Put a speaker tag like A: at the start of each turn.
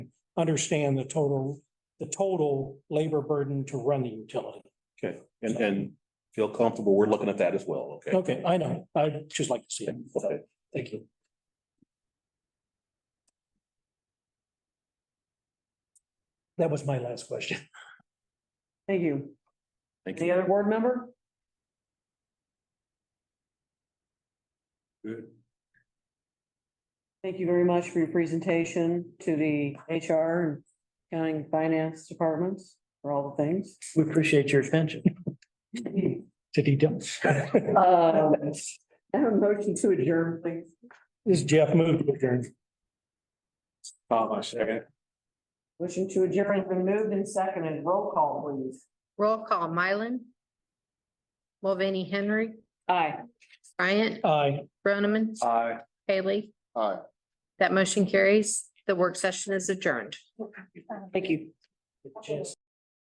A: understand the total, the total labor burden to run the utility.
B: Okay, and, and feel comfortable, we're looking at that as well, okay?
A: Okay, I know. I'd just like to see it.
B: Okay,
A: Thank you. That was my last question.
C: Thank you.
B: thank
C: Any
B: you.
C: other board member? Thank you very much for your presentation to the HR and accounting and finance departments for all the things.
D: We appreciate your attention to details.
C: Um, I have a motion to adjourn, please.
A: This is Jeff moved to adjourn.
C: Motion to adjourn has been moved and seconded. Roll call, please.
E: Roll call, Mylan. Mulvaney Henry,
C: Aye.
E: Bryant,
A: Aye.
E: Groneman,
B: Aye.
E: Haley.
B: Aye.
E: That motion carries. The work session is adjourned.
C: Thank you.